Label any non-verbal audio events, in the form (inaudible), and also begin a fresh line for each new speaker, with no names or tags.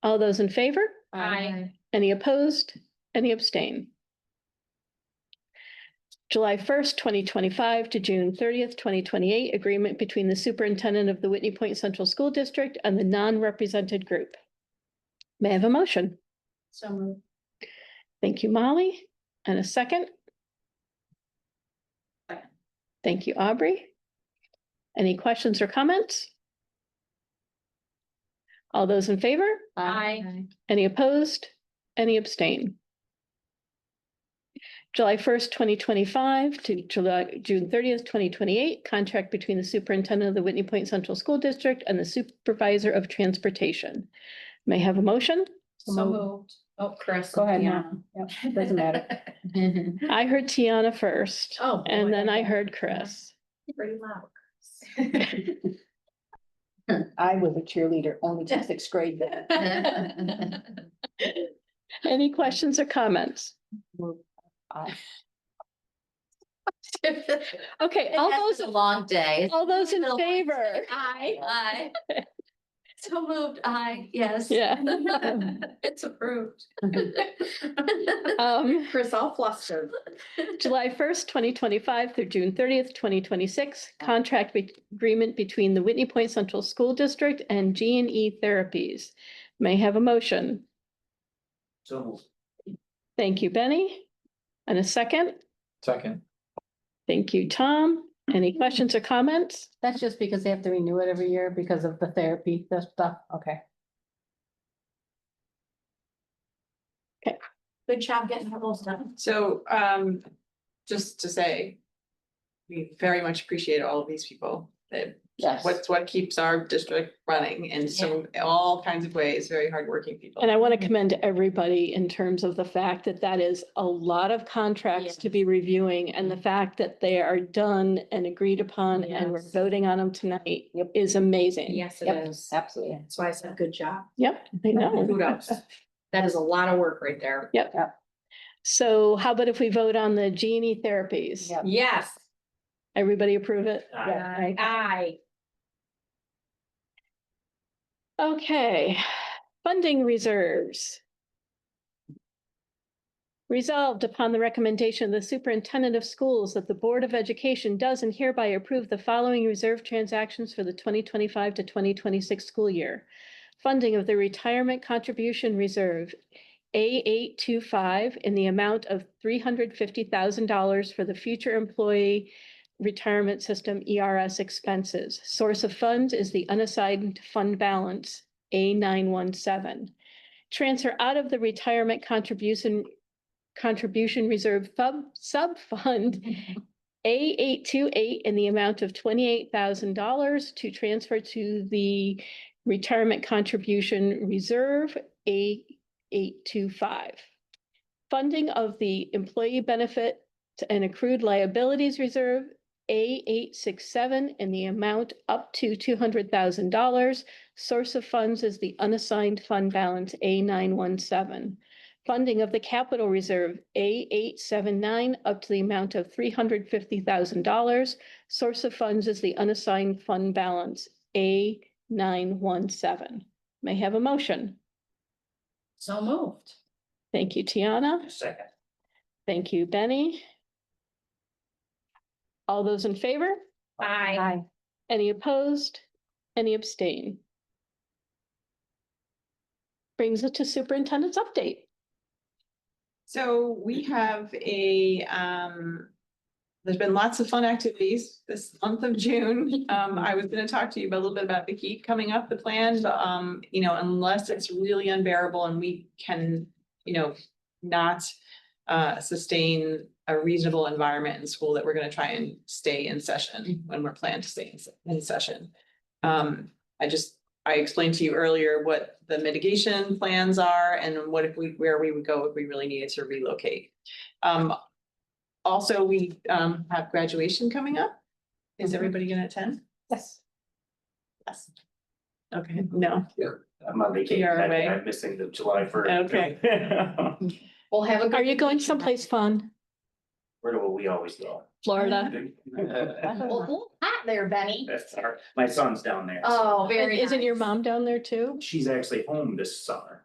All those in favor?
Aye.
Any opposed? Any abstain? July 1st, 2025 to June 30th, 2028, agreement between the superintendent of the Whitney Point Central School District and the non-represented group. May I have a motion?
So moved.
Thank you, Molly. And a second?
Second.
Thank you, Aubrey. Any questions or comments? All those in favor?
Aye.
Any opposed? Any abstain? July first, twenty twenty-five to July, June thirtieth, twenty twenty-eight, contract between the superintendent of the Whitney Point Central School District and the supervisor of transportation. May I have a motion?
So moved. Oh, Chris.
Go ahead,
Yeah.
Mom.
(laughs)
Yep, doesn't matter.
I heard Tiana first.
Mm-hmm. Oh.
And
boy.
then I heard Chris.
Pretty loud. Chris.
I was a cheerleader only to sixth grade then.
Any questions or comments? Okay, all
(laughs) All
those,
a long day.
all those in
Little ones.
favor?
Aye. Aye. So moved, aye, yes.
Yeah.
(laughs) It's approved.
Um,
(laughs) Chris all flustered.
July first, twenty twenty-five through June thirtieth, twenty twenty-six, contract be- agreement between the Whitney Point Central School District and G and E Therapies. May I have a motion.
So moved.
Thank you, Benny. And a second.
Second.
Thank you, Tom. Any questions or comments?
That's just because they have to renew it every year because of the therapy, the stuff, okay.
Good job getting her all done.
So, um, just to say, we very much appreciate all of these people that
Yes.
what's what keeps our district running in so all kinds of ways, very hardworking people.
And I want to commend everybody in terms of the fact that that is a lot of contracts to be reviewing and the fact that they are done and agreed upon and we're
Yes.
voting on them tonight
Yep.
is amazing.
Yes,
Yep,
it is.
Absolutely.
That's why I said good job.
Yep, I know.
(laughs)
Kudos.
That is a lot of work right there.
So how about if we vote on the genie E therapies?
Yep.
Yes,
Everybody approve it?
Aye.
aye.
Okay, funding reserves. Resolved upon the recommendation of the superintendent of schools that the Board of Education does and hereby approve the following reserve transactions for the twenty twenty-five to twenty twenty-six school year. Funding of the Retirement Contribution Reserve, A eight two five, in the amount of three hundred fifty thousand dollars for the future employee retirement system ERS expenses. Source of funds is the unassigned fund balance, A nine one seven. Transfer out of the retirement contribution, contribution reserve sub, sub-fund A eight two eight in the amount of twenty-eight thousand dollars to transfer to the retirement contribution reserve, A eight two five. Funding of the employee benefit and accrued liabilities reserve, a eight six seven in the amount up to two hundred thousand dollars. Source of funds is the unassigned fund balance A nine one seven. Funding of the capital reserve A eight seven nine up to the amount of three hundred fifty thousand dollars. Source of funds is the unassigned fund balance A nine one seven. May I have a motion.
So moved.
Thank you, Tiana.
Second.
Thank you, Benny. All those in favor?
Aye.
Aye.
Any opposed? Any abstain? Brings us to superintendent's update.
So we have a, um, there's been lots of fun activities this month of June. Um, I was gonna talk to you about- a little bit about the heat coming up, the plan, but, um, you know, unless it's really unbearable and we can, you know, not uh, sustain a reasonable environment in school that we're gonna try and stay in session when we're planned to stay in, se- in session. Um, I just, I explained to you earlier what the mitigation plans are and what if we, where we would go if we really needed to relocate. Um, also, we, um, have graduation coming up. Is
Mhm.
everybody gonna attend?
Yes.
Yes. Okay, no,
I'm on vacation.
You're
I-
away.
I'm missing the July first. (laughs)
Okay.
Where
We'll have a.
Are
good
you going
meeting.
someplace fun?
(laughs) do we always go?
Florida.
Well, cool hat there, Benny.
That's our, my son's down there. so
Oh, very
Isn't your
nice.
mom down there too?
She's actually home this summer.